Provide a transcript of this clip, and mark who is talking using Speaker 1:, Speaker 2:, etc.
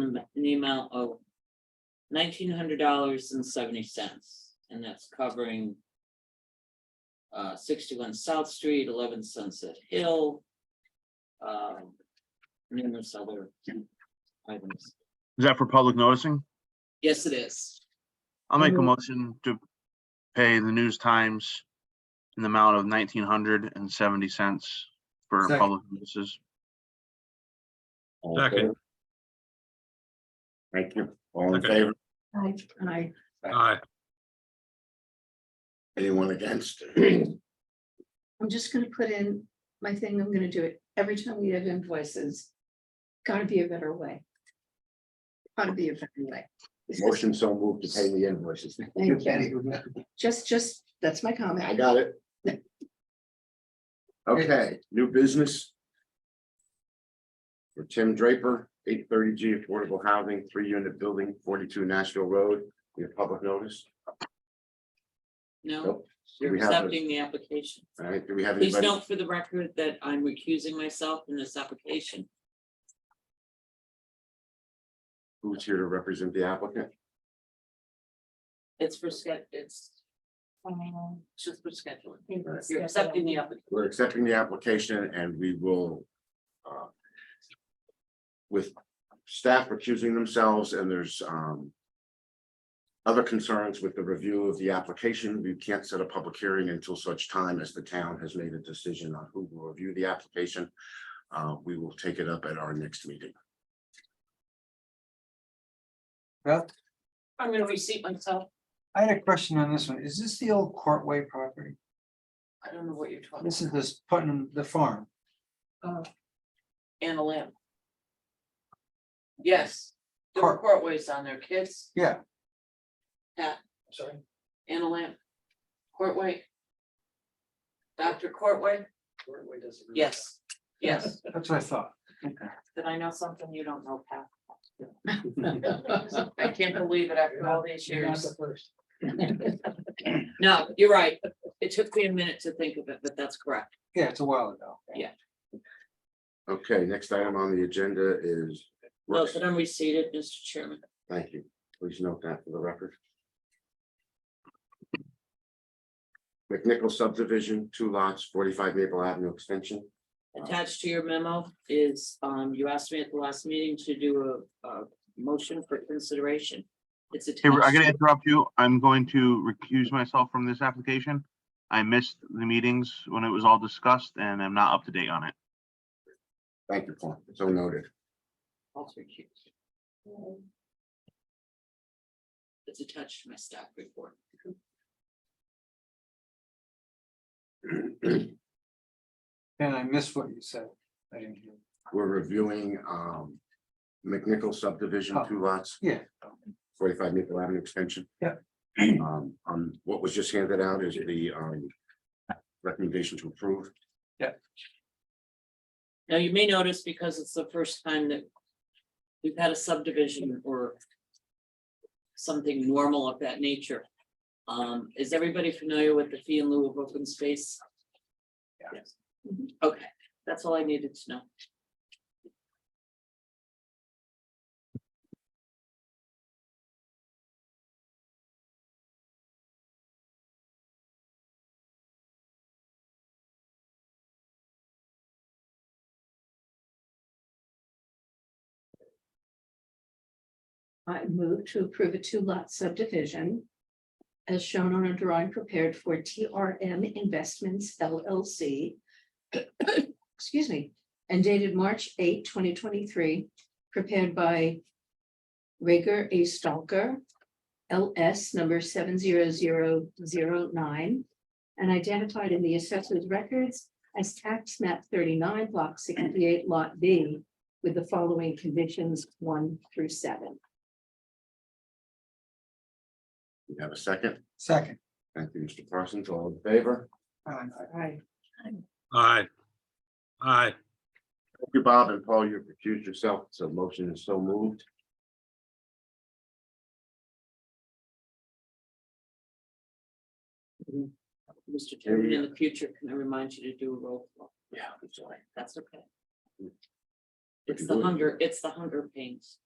Speaker 1: in the amount of nineteen hundred dollars and seventy cents, and that's covering uh, sixty-one South Street, eleven Sunset Hill, um, numerous other items.
Speaker 2: Is that for public noticing?
Speaker 1: Yes, it is.
Speaker 2: I'll make a
Speaker 3: Mhm.
Speaker 2: motion to pay the News Times in the amount of nineteen hundred and seventy cents for
Speaker 4: Second.
Speaker 2: public notices.
Speaker 5: All in
Speaker 6: Second.
Speaker 5: favor? Thank you. All in
Speaker 6: Second.
Speaker 5: favor?
Speaker 3: Aye, aye.
Speaker 6: Aye.
Speaker 5: Anyone against?
Speaker 3: I'm just gonna put in my thing, I'm gonna do it every time we have invoices. Gotta be a better way. Gotta be a better way. This is-
Speaker 5: Motion so moved to pay the invoices.
Speaker 3: Thank Just, just, that's my
Speaker 5: I
Speaker 3: comment.
Speaker 5: got it. Okay, new business. For Tim Draper, eight thirty G Affordable Housing, three unit building, forty-two Nashville Road, we have public notice.
Speaker 1: No,
Speaker 5: Nope. Do
Speaker 1: you're
Speaker 5: we have a-
Speaker 1: accepting the application.
Speaker 5: All right, do we have
Speaker 1: Please
Speaker 5: anybody?
Speaker 1: note for the record that I'm recusing myself in this application.
Speaker 5: Who's here to represent the applicant?
Speaker 1: It's for sched, it's um, it's just for scheduling.
Speaker 3: Thank you.
Speaker 1: You're accepting the application.
Speaker 5: We're accepting the application and we will. uh, With staff recusing themselves and there's um. Other concerns with the review of the application, we can't set a public hearing until such time as the town has made a decision on who will review the application. Uh, we will take it up at our next meeting.
Speaker 4: Well,
Speaker 1: I'm gonna reseat myself.
Speaker 4: I had a question on this one. Is this the old Courtway property?
Speaker 1: I don't know what you're talking
Speaker 4: This is this Putnam, the farm.
Speaker 1: about. Anna Lamb. Yes, there were
Speaker 4: Court-
Speaker 1: courtways on there, kids,
Speaker 4: Yeah.
Speaker 1: Yeah.
Speaker 4: Sorry.
Speaker 1: Anna Lamb. Courtway. Dr. Courtway, yes, yes.
Speaker 4: That's what I thought.
Speaker 1: Did I know something you don't know, Pat? I can't believe it after all these years. No, you're right. It took me a minute to think of it, but that's correct.
Speaker 4: Yeah, it's a while ago.
Speaker 5: Okay, next item on the agenda is.
Speaker 1: No, that I'm reseated, Mr. Chairman.
Speaker 5: Thank you. Please note that for the record. McNichol subdivision, two lots, forty-five Maple Avenue extension.
Speaker 1: Attached to your memo is, um, you asked me at the last meeting to do a, a motion for consideration. It's
Speaker 2: Hey, I'm
Speaker 1: attached.
Speaker 2: gonna
Speaker 1: to-
Speaker 2: interrupt you. I'm going to recuse myself from this application. I missed the meetings when it was all discussed and I'm not up to date on it.
Speaker 5: Thank you, Paul. So noted.
Speaker 1: It's attached to my staff report.
Speaker 4: And I missed what you said. I didn't hear.
Speaker 5: We're reviewing um McNichol subdivision,
Speaker 4: Oh.
Speaker 5: two lots,
Speaker 4: Yeah,
Speaker 5: forty-five Maple Avenue extension.
Speaker 4: Yeah.
Speaker 5: Um, um, what was just handed out is the um recommendation to approve.
Speaker 1: Now, you may notice because it's the first time that we've had a subdivision or something normal of that nature. Um, is everybody familiar with the fee in lieu of open space?
Speaker 4: Yeah.
Speaker 1: Yes. Mhm. Okay, that's all I needed to know.
Speaker 3: I move to approve a two lot subdivision. As shown on a drawing prepared for TRM Investments LLC. Excuse me, and dated March 8, 2023, prepared by. Rager A Stalker. LS number seven zero zero zero nine. And identified in the assessor's records as tax map thirty-nine block sixty-eight lot B. With the following conditions, one through seven.
Speaker 5: We have a second.
Speaker 4: second.
Speaker 5: Thank you, Mr. Parsons. All in favor?
Speaker 4: Uh,
Speaker 3: Right.
Speaker 6: Aye. Aye.
Speaker 5: Thank you, Bob and Paul, you've recused yourself, so motion is so moved.
Speaker 1: Mr. Chairman, in the future, can I remind you to do a roll call?
Speaker 5: Yeah, I'm sorry.
Speaker 1: That's okay. It's the hunger, it's the hunger pains.